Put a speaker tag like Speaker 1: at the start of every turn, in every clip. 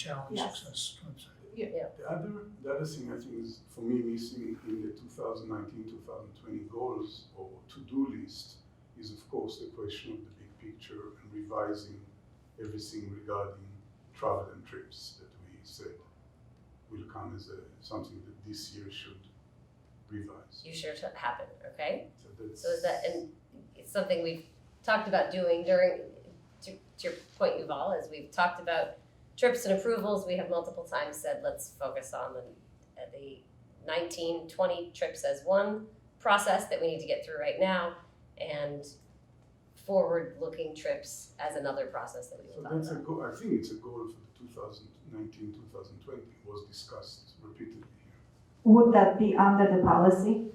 Speaker 1: challenge
Speaker 2: Yes.
Speaker 1: success. I'm sorry.
Speaker 3: The other, the other thing I think is for me missing in the 2019-2020 goals or to-do list is of course the question of the big picture and revising everything regarding travel and trips that we said will come as a, something that this year should revise.
Speaker 4: you sure to happen, okay?
Speaker 3: So that's,
Speaker 4: So is that, and it's something we've talked about doing during, to, to your point, Yuval, is we've talked about trips and approvals, we have multiple times said, let's focus on the, uh, the nineteen, twenty trips as one process that we need to get through right now, and forward-looking trips as another process that we
Speaker 3: so
Speaker 4: will talk
Speaker 3: that's a
Speaker 4: about.
Speaker 3: goal. I think it's a goal for the 2019-2020 was discussed repeatedly here.
Speaker 2: Would that be under the policy?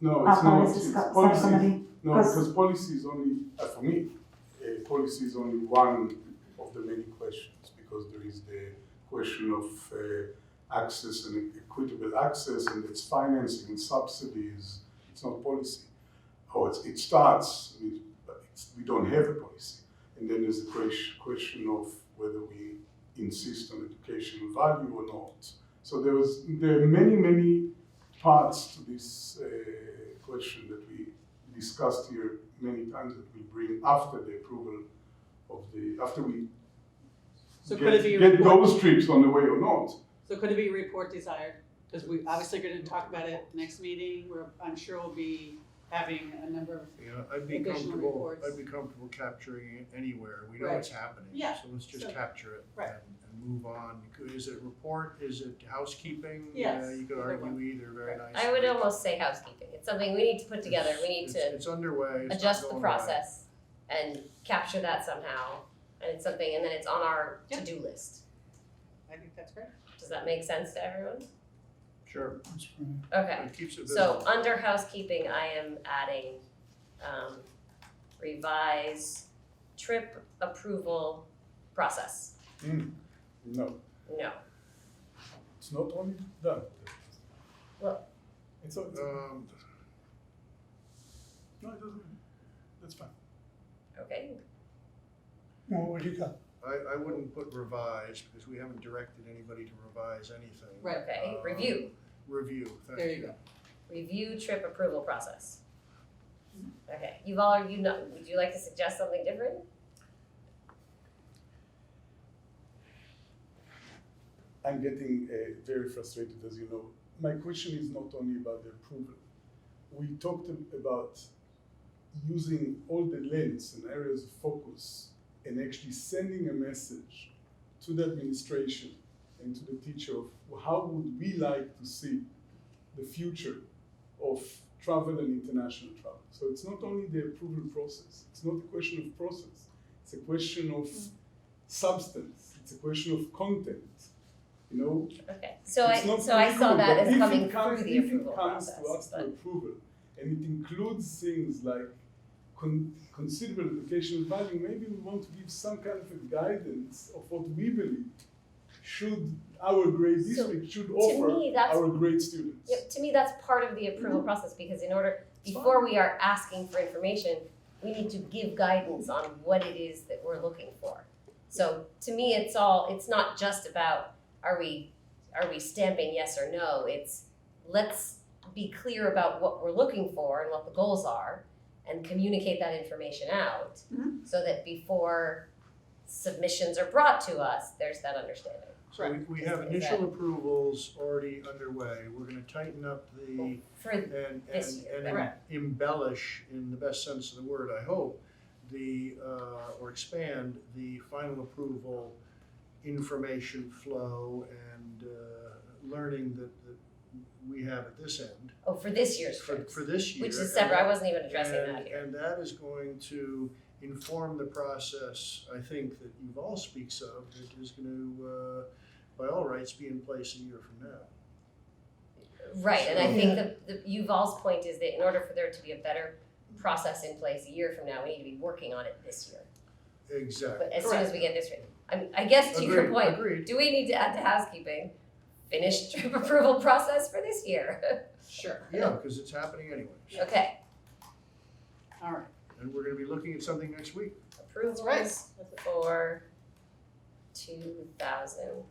Speaker 3: No,
Speaker 2: Uh,
Speaker 3: it's not.
Speaker 2: policy
Speaker 3: It's
Speaker 2: sub-
Speaker 3: policies.
Speaker 2: subcommittee?
Speaker 3: No,
Speaker 2: 'Cause-
Speaker 3: because policy is only, uh, for me, uh, policy is only one of the many questions because there is the question of uh, access and equitable access and its financing and subsidies. It's not policy. Oh, it's, it starts with, but it's, we don't have a policy. And then there's the ques- question of whether we insist on educational value or not. So there was, there are many, many parts to this uh, question that we discussed here many times that we bring after the approval of the, after we
Speaker 5: So could
Speaker 3: get,
Speaker 5: it be a
Speaker 3: get
Speaker 5: report,
Speaker 3: those trips on the way or not.
Speaker 5: so could it be a report desired? Because we obviously gonna talk about it next meeting, where I'm sure we'll be having a number of,
Speaker 1: Yeah, I'd be
Speaker 5: Additional
Speaker 1: comfortable,
Speaker 5: reports.
Speaker 1: I'd be comfortable capturing it anywhere, we know
Speaker 5: Right.
Speaker 1: it's happening,
Speaker 5: Yeah,
Speaker 1: so let's just
Speaker 5: so-
Speaker 1: capture it
Speaker 5: right.
Speaker 1: and, and move on. Could- Is it report, is it housekeeping?
Speaker 5: Yes,
Speaker 1: Yeah, You could
Speaker 5: either
Speaker 1: argue
Speaker 5: one.
Speaker 1: either very
Speaker 5: Right.
Speaker 1: nicely.
Speaker 4: I would almost say housekeeping, it's something we need to put together, we need
Speaker 1: It's-
Speaker 4: to.
Speaker 1: it's- It's underway, it's not
Speaker 4: adjust the
Speaker 1: going away.
Speaker 4: process and capture that somehow. And it's something, and then it's on our
Speaker 5: Yeah.
Speaker 4: to-do list.
Speaker 5: I think that's great.
Speaker 4: Does that make sense to everyone?
Speaker 1: Sure,
Speaker 3: That's fine.
Speaker 4: Okay,
Speaker 1: it keeps it
Speaker 4: so
Speaker 1: visible.
Speaker 4: under housekeeping, I am adding, um, revise trip approval process.
Speaker 3: Mm, No,
Speaker 4: No,
Speaker 3: it's not only done.
Speaker 4: Well-
Speaker 3: It's, all- it's-
Speaker 1: Um,
Speaker 3: no, it doesn't, that's fine.
Speaker 4: okay,
Speaker 6: Well, what do you got?
Speaker 1: I, I wouldn't put revise, because we haven't directed anybody to revise anything.
Speaker 5: Right.
Speaker 4: okay,
Speaker 1: Um,
Speaker 4: review,
Speaker 1: Review, thank you.
Speaker 5: There you go.
Speaker 4: review trip approval process. Okay, you've all, you know, would you like to suggest something different?
Speaker 3: I'm getting uh, very frustrated, as you know. My question is not only about the approval. We talked ab- about using all the lens and areas of focus and actually sending a message to the administration and to the teacher of how would we like to see the future of travel and international travel. So it's not only the approval process, it's not a question of process, it's a question of substance, it's a question of content. You know,
Speaker 4: Okay, so I,
Speaker 3: It's not
Speaker 4: so I saw
Speaker 3: approval,
Speaker 4: that
Speaker 3: but
Speaker 4: as
Speaker 3: if
Speaker 4: coming
Speaker 3: it comes-
Speaker 4: through the
Speaker 3: if it
Speaker 4: approval
Speaker 3: comes
Speaker 4: process,
Speaker 3: to us to
Speaker 4: but,
Speaker 3: approval, and it includes things like con- considerable educational value, maybe we want to give some kind of a guidance of what we believe should our grade
Speaker 4: So,
Speaker 3: district should offer
Speaker 4: me, that's-
Speaker 3: our grade students.
Speaker 4: Yep, to me, that's part of the approval process, because in order,
Speaker 3: It's fine.
Speaker 4: before we are asking for information, we need to give guidance on what it is that we're looking for. So to me, it's all, it's not just about, are we, are we stamping yes or no, it's, let's be clear about what we're looking for and what the goals are, and communicate that information out,
Speaker 5: Mhm.
Speaker 4: so that before submissions are brought to us, there's that understanding.
Speaker 1: So we- we have
Speaker 4: Is
Speaker 1: initial
Speaker 4: that-
Speaker 1: approvals already underway. We're gonna tighten up the,
Speaker 4: For
Speaker 1: and,
Speaker 4: Oh, This
Speaker 1: and,
Speaker 4: year,
Speaker 1: and
Speaker 5: correct.
Speaker 1: embellish, in the best sense of the word, I hope, the, uh, or expand the final approval information flow and, uh, learning that, that we have at this end
Speaker 4: Oh, for this year's
Speaker 1: for,
Speaker 4: trips,
Speaker 1: for this year.
Speaker 4: which
Speaker 1: And
Speaker 4: is separate, I wasn't even addressing
Speaker 1: and-
Speaker 4: that here.
Speaker 1: And that is going to inform the process, I think, that you've all speaks of, that is gonna, uh, by all rights, be in place a year from now.
Speaker 4: Right, and I
Speaker 6: So-
Speaker 4: think the, the Yuval's point is that in order for there to be a better process in place a year from now, we need to be working on it this year.
Speaker 1: Exactly.
Speaker 4: But as soon as we get this, I mean, I guess to your
Speaker 1: Agreed,
Speaker 4: point,
Speaker 1: Agreed,
Speaker 4: do we need to add to housekeeping? Finish trip approval process for this year,
Speaker 5: Sure.
Speaker 1: yeah, because it's happening anyways,
Speaker 4: okay,
Speaker 5: All right,
Speaker 1: and we're gonna be looking at something next week.
Speaker 4: approvals
Speaker 5: right.
Speaker 4: for two thousand